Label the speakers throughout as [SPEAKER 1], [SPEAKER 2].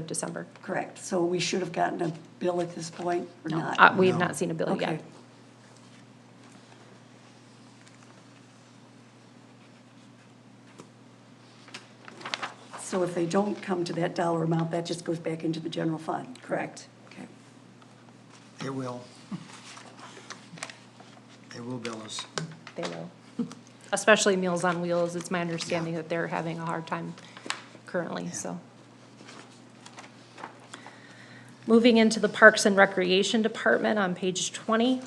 [SPEAKER 1] of December.
[SPEAKER 2] Correct, so we should have gotten a bill at this point, or not?
[SPEAKER 1] Uh, We have not seen a bill
[SPEAKER 2] Okay.
[SPEAKER 1] yet.
[SPEAKER 2] So if they don't come to that dollar amount, that just goes back into the general fund, correct? Okay.
[SPEAKER 3] It will. They will bill us.
[SPEAKER 1] They will. Especially Meals on Wheels, it's my understanding that they're having a hard time currently, so. Moving into the Parks and Recreation Department on page twenty.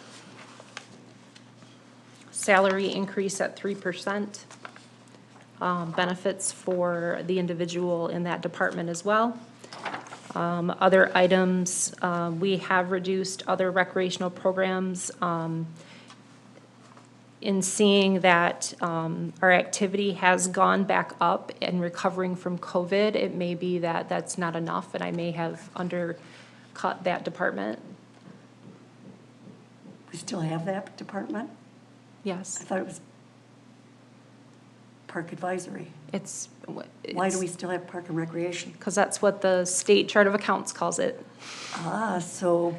[SPEAKER 1] Salary increase at three percent. Um, benefits for the individual in that department as well. Um, other items, uh, we have reduced other recreational programs, um, in seeing that um, our activity has gone back up and recovering from COVID, it may be that that's not enough, and I may have undercut that department.
[SPEAKER 2] We still have that department?
[SPEAKER 1] Yes,
[SPEAKER 2] I thought it was Park Advisory.
[SPEAKER 1] it's.
[SPEAKER 2] Why do we still have Park and Recreation?
[SPEAKER 1] Because that's what the state chart of accounts calls it.
[SPEAKER 2] Ah, so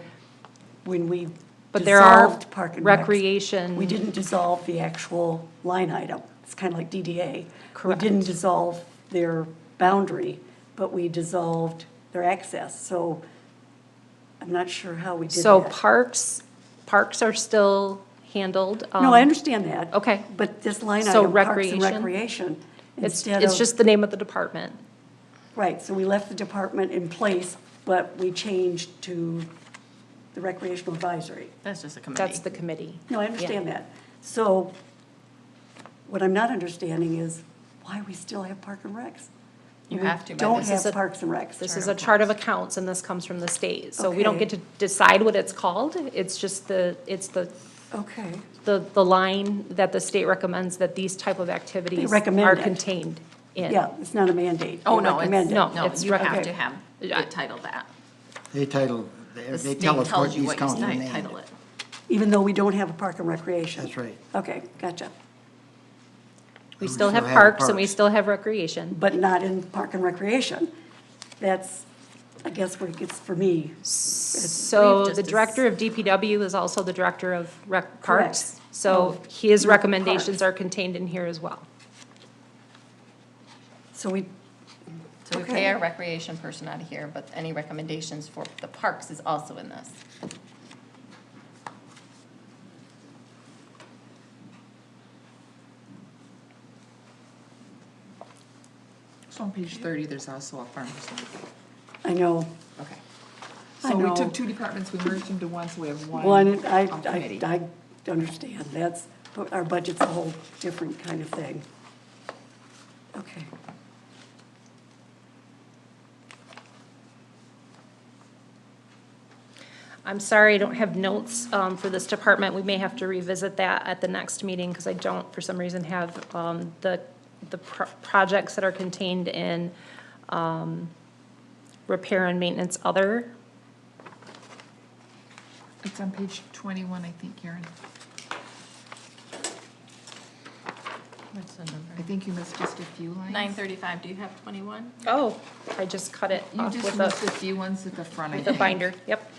[SPEAKER 2] when we
[SPEAKER 1] But there are
[SPEAKER 2] dissolved Park and Recs,
[SPEAKER 1] recreation-
[SPEAKER 2] We didn't dissolve the actual line item. It's kind of like DDA.
[SPEAKER 1] Correct.
[SPEAKER 2] We didn't dissolve their boundary, but we dissolved their access. So I'm not sure how we did that.
[SPEAKER 1] So parks, parks are still handled.
[SPEAKER 2] No, I
[SPEAKER 1] um,
[SPEAKER 2] understand that.
[SPEAKER 1] okay.
[SPEAKER 2] But this line
[SPEAKER 1] So
[SPEAKER 2] item, Parks and
[SPEAKER 1] recreation?
[SPEAKER 2] Recreation,
[SPEAKER 1] It's,
[SPEAKER 2] instead of.
[SPEAKER 1] it's just the name of the department.
[SPEAKER 2] Right, so we left the department in place, but we changed to the recreational advisory.
[SPEAKER 4] That's just a committee.
[SPEAKER 1] That's the committee.
[SPEAKER 2] No, I understand that. So what I'm not understanding is why we still have Park and Recs.
[SPEAKER 4] You
[SPEAKER 2] We
[SPEAKER 4] have to, but
[SPEAKER 2] Don't
[SPEAKER 4] this
[SPEAKER 1] is
[SPEAKER 2] have
[SPEAKER 1] a-
[SPEAKER 2] Parks and Recs.
[SPEAKER 1] This is a chart of accounts and this comes from the state. So we don't
[SPEAKER 2] Okay.
[SPEAKER 1] get to decide what it's called. It's just the, it's the,
[SPEAKER 2] Okay,
[SPEAKER 1] the, the line that the state recommends that these type of activities
[SPEAKER 2] recommend
[SPEAKER 1] are
[SPEAKER 2] it.
[SPEAKER 1] contained in.
[SPEAKER 2] yeah, it's not a mandate.
[SPEAKER 4] Oh,
[SPEAKER 2] They
[SPEAKER 4] no,
[SPEAKER 2] recommend
[SPEAKER 4] it's,
[SPEAKER 2] it.
[SPEAKER 1] No,
[SPEAKER 4] no,
[SPEAKER 1] it's
[SPEAKER 4] you have
[SPEAKER 2] okay.
[SPEAKER 4] to have it titled that.
[SPEAKER 3] They title, they
[SPEAKER 4] The
[SPEAKER 3] they
[SPEAKER 4] state
[SPEAKER 3] tell us what
[SPEAKER 4] tells you
[SPEAKER 3] these
[SPEAKER 4] what you
[SPEAKER 3] counties
[SPEAKER 4] ti-
[SPEAKER 3] named.
[SPEAKER 4] title it.
[SPEAKER 2] Even though we don't have a Park and Recreation.
[SPEAKER 3] That's right.
[SPEAKER 2] Okay, gotcha.
[SPEAKER 1] We
[SPEAKER 3] We
[SPEAKER 1] still have
[SPEAKER 3] still have
[SPEAKER 1] parks and we
[SPEAKER 3] parks.
[SPEAKER 1] still have recreation.
[SPEAKER 2] But not in Park and Recreation. That's, I guess where it gets for me.
[SPEAKER 1] So
[SPEAKER 4] just
[SPEAKER 1] the
[SPEAKER 4] dis-
[SPEAKER 1] director of DPW is also the director of rec, parks.
[SPEAKER 2] Correct.
[SPEAKER 1] So
[SPEAKER 2] Of
[SPEAKER 1] his
[SPEAKER 2] rec
[SPEAKER 1] recommendations
[SPEAKER 2] parks.
[SPEAKER 1] are contained in here as well.
[SPEAKER 2] So we,
[SPEAKER 4] So we
[SPEAKER 2] Okay.
[SPEAKER 4] pay our recreation person out of here, but any recommendations for the parks is also in this.
[SPEAKER 5] So on page thirty, there's also a farmer's market.
[SPEAKER 2] I know,
[SPEAKER 5] Okay.
[SPEAKER 2] I
[SPEAKER 5] So we
[SPEAKER 2] know.
[SPEAKER 5] took two departments, we merged into one, so we have one.
[SPEAKER 2] one, I,
[SPEAKER 5] um, committee.
[SPEAKER 2] I, I understand, that's, but our budget's a whole different kind of thing. Okay.
[SPEAKER 1] I'm sorry, I don't have notes um, for this department. We may have to revisit that at the next meeting because I don't, for some reason, have um, the, the pro- projects that are contained in um, repair and maintenance other.
[SPEAKER 5] It's on page twenty-one, I think, Karen.
[SPEAKER 4] What's the
[SPEAKER 5] I
[SPEAKER 4] number?
[SPEAKER 5] think you missed just a few lines.
[SPEAKER 4] Nine thirty-five, do you have twenty-one?
[SPEAKER 1] Oh, I just cut it
[SPEAKER 5] You
[SPEAKER 1] off
[SPEAKER 5] just
[SPEAKER 1] with
[SPEAKER 5] missed a
[SPEAKER 1] the,
[SPEAKER 5] few ones at the front, I
[SPEAKER 1] with the
[SPEAKER 5] think.
[SPEAKER 1] binder. Yep.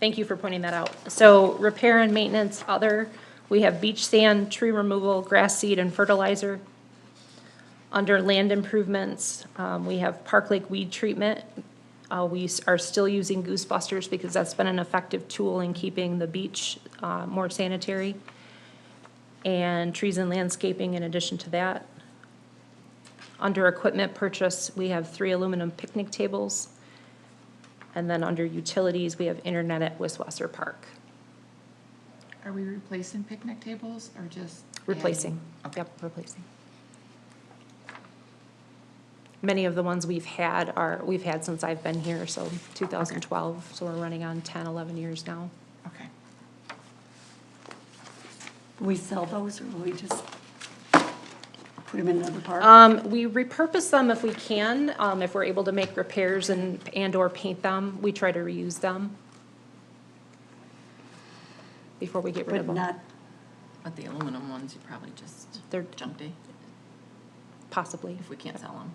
[SPEAKER 1] Thank you for pointing that out. So repair and maintenance other, we have beach sand, tree removal, grass seed, and fertilizer. Under land improvements, um, we have Park Lake weed treatment. Uh, we s- are still using Goosebusters because that's been an effective tool in keeping the beach, uh, more sanitary. And trees and landscaping in addition to that. Under equipment purchase, we have three aluminum picnic tables. And then under utilities, we have internet at Wiswasser Park,
[SPEAKER 5] Are we replacing picnic tables or just?
[SPEAKER 1] replacing,
[SPEAKER 5] adding? Okay.
[SPEAKER 1] yep, replacing. Many of the ones we've had are, we've had since I've been here, so 2012, so we're running on 10, 11 years now.
[SPEAKER 5] Okay.
[SPEAKER 2] Will we sell those, or will we just put them in another park?
[SPEAKER 1] Um, we repurpose them if we can, um, if we're able to make repairs and, and/or paint them, we try to reuse them before we get rid
[SPEAKER 2] But
[SPEAKER 1] of them.
[SPEAKER 2] not,
[SPEAKER 4] But the aluminum ones, you probably just,
[SPEAKER 1] They're-
[SPEAKER 4] they're junk day.
[SPEAKER 1] possibly.
[SPEAKER 4] if we can't sell them.